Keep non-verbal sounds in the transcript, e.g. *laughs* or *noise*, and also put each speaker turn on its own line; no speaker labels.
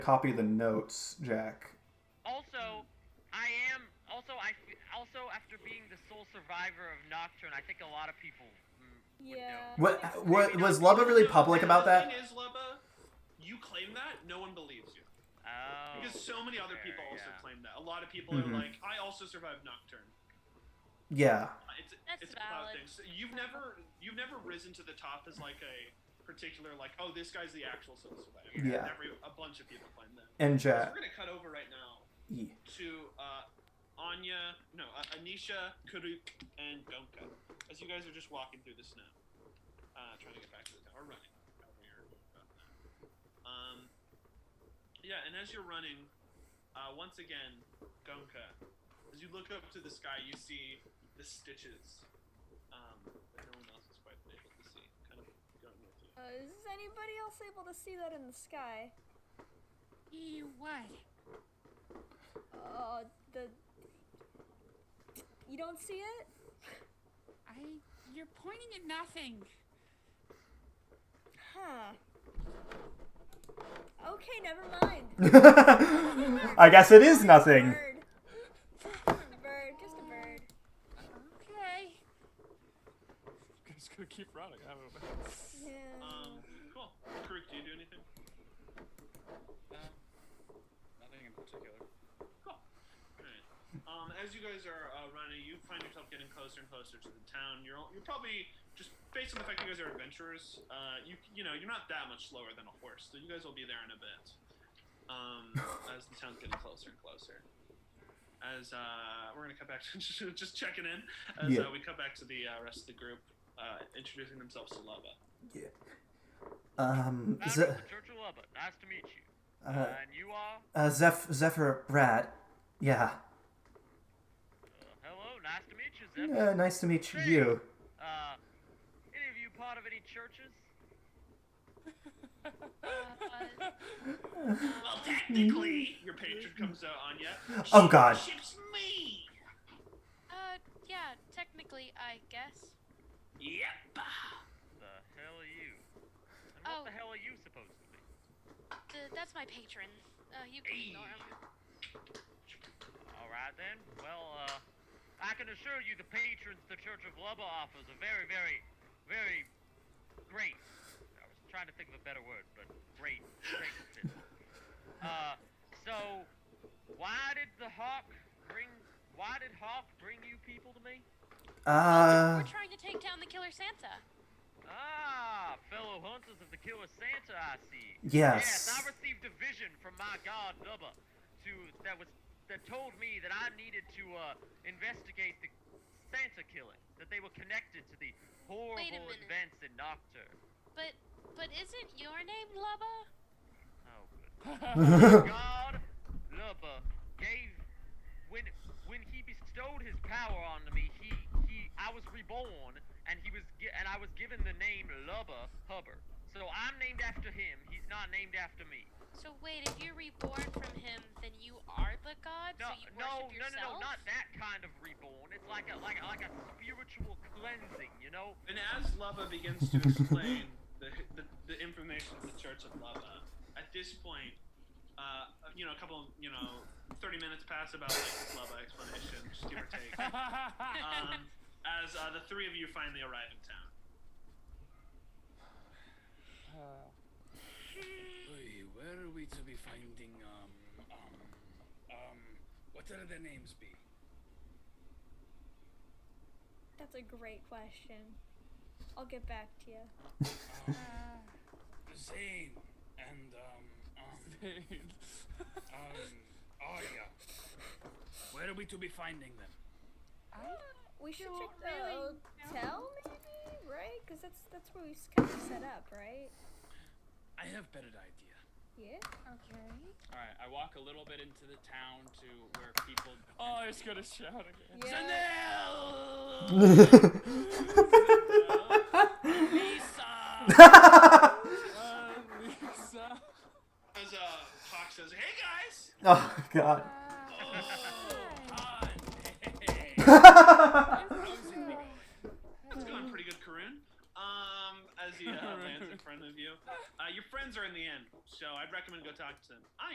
copy the notes, Jack.
Also, I am also I f- also after being the sole survivor of Nocturne, I think a lot of people. mm, would
Yeah.
know.
What, what was Lubba really public about that?
The thing is, Lubba, you claim that, no one believes you.
Oh,
Because so many other
fair,
people also
yeah.
claim that. A lot of people
Mhm.
are like, I also survived Nocturne.
Yeah.
Uh, It's
That's
it's a cloud
valid.
thing. So you've never you've never risen to the top as like a particular like, oh, this guy's the actual sole survivor.
Yeah.
Every, a bunch of people claim that.
And
So
Jack. E.
we're gonna cut over right now
Yeah.
to uh, Anya, no, uh, Anisha, Karuk, and Donka. As you guys are just walking through the snow, uh, trying to get back to the town, or running. however you're about that. Um, yeah, and as you're running, uh, once again, Donka, as you look up to the sky, you see the stitches um, that no one else is quite able to see, kind of going with you.
Uh, is anybody else able to see that in the sky?
He what?
Uh, the. You don't see it?
I. You're pointing at nothing.
Huh. Okay, never mind.
*laughs* I guess it is nothing.
Bird. *laughs* bird, just a bird.
Okay.
I'm just gonna keep running. I don't know.
Yeah.
Um, cool. Karuk, do you do anything?
No, Uh, nothing in particular.
Cool. Alright. Um, as you guys are uh, running, you find yourself getting closer and closer to the town. You're all, you're probably just based on the fact that you guys are adventurers. Uh, you you know you're not that much slower than a horse, so you guys will be there in a bit.
*laughs*
Um, as the town's getting closer and closer. As uh, we're gonna cut back to *laughs* just checking in. As
Yeah.
uh, we cut back to the uh, rest of the group, uh, introducing themselves to Lava.
Um, Ze-
Founder of the Church of Lubba. Nice to meet you.
uh,
and you are?
uh, Zeph- Zephyr Brad. Yeah.
Uh, hello. Nice to meet you, Zephyr.
Uh, nice to meet you.
Uh, any of you part of any churches?
Well, technically, your patron comes out on you.
Mm-hmm. Oh, God.
Ships me.
Uh, yeah, technically, I guess.
Yep.
The hell are you? And
Oh.
what the hell are you supposed to be?
Th- that's my patron. Uh, you can ignore him.
All right then. Well, uh, I can assure you the patrons the Church of Lubba offers are very, very, very great. I was trying to think of a better word, but great, great. fit. uh, so why did the hawk bring? Why did Hawk bring you people to me?
Uh,
We're trying to take down the killer Santa.
Ah, fellow hunters of the killer Santa, I see.
Yes. *laughs*
*laughs* I received a vision from my god Lubba, to that was that told me that I needed to uh, investigate the Santa killing. That they were connected to the horrible
minute.
events in Nocturne.
But, but isn't your name Lubba?
Oh, good.
*laughs* uh,
God Lubba gave when when he bestowed his power onto me. He he I was reborn, and he was gi- and I was given the name Lubba Hubbard. So I'm named after him. He's not named after me.
So wait, if you're reborn from him, then you are the god.
No,
so you
no, no,
worship
no,
yourself.
no, not that kind of reborn. It's like a like a, like a spiritual cleansing, you know?
And as Lava begins to explain the, the, the information of the Church of Lava, at this point, uh, you know, a couple, you know, 30 minutes pass about like this Lava explanation, just give or take, um, as uh, the three of you finally arrive in town.
Oy, where are we to be finding um um um what are their names be?
That's a great question. I'll get back to you.
Um, Zane and um um um Arya. Where are we to be finding them?
Uh, We should
Don't
check the
really
hotel, maybe, right? Because that's that's where we s- kind of set up, right?
I have better idea.
Yeah.
Okay.
All right, I walk a little bit into the town to where people.
oh, I was gonna shout again.
Yeah.
*laughs* Uh, Lisa.
As uh, Hawk says, hey
*laughs*
guys!
oh God.
*laughs*
Ah, hey.
*laughs*
It's going pretty good, Karun. Um,
*laughs*
as he uh, lands in front of you. Uh, your friends are in the inn, so I'd recommend go talk to them. I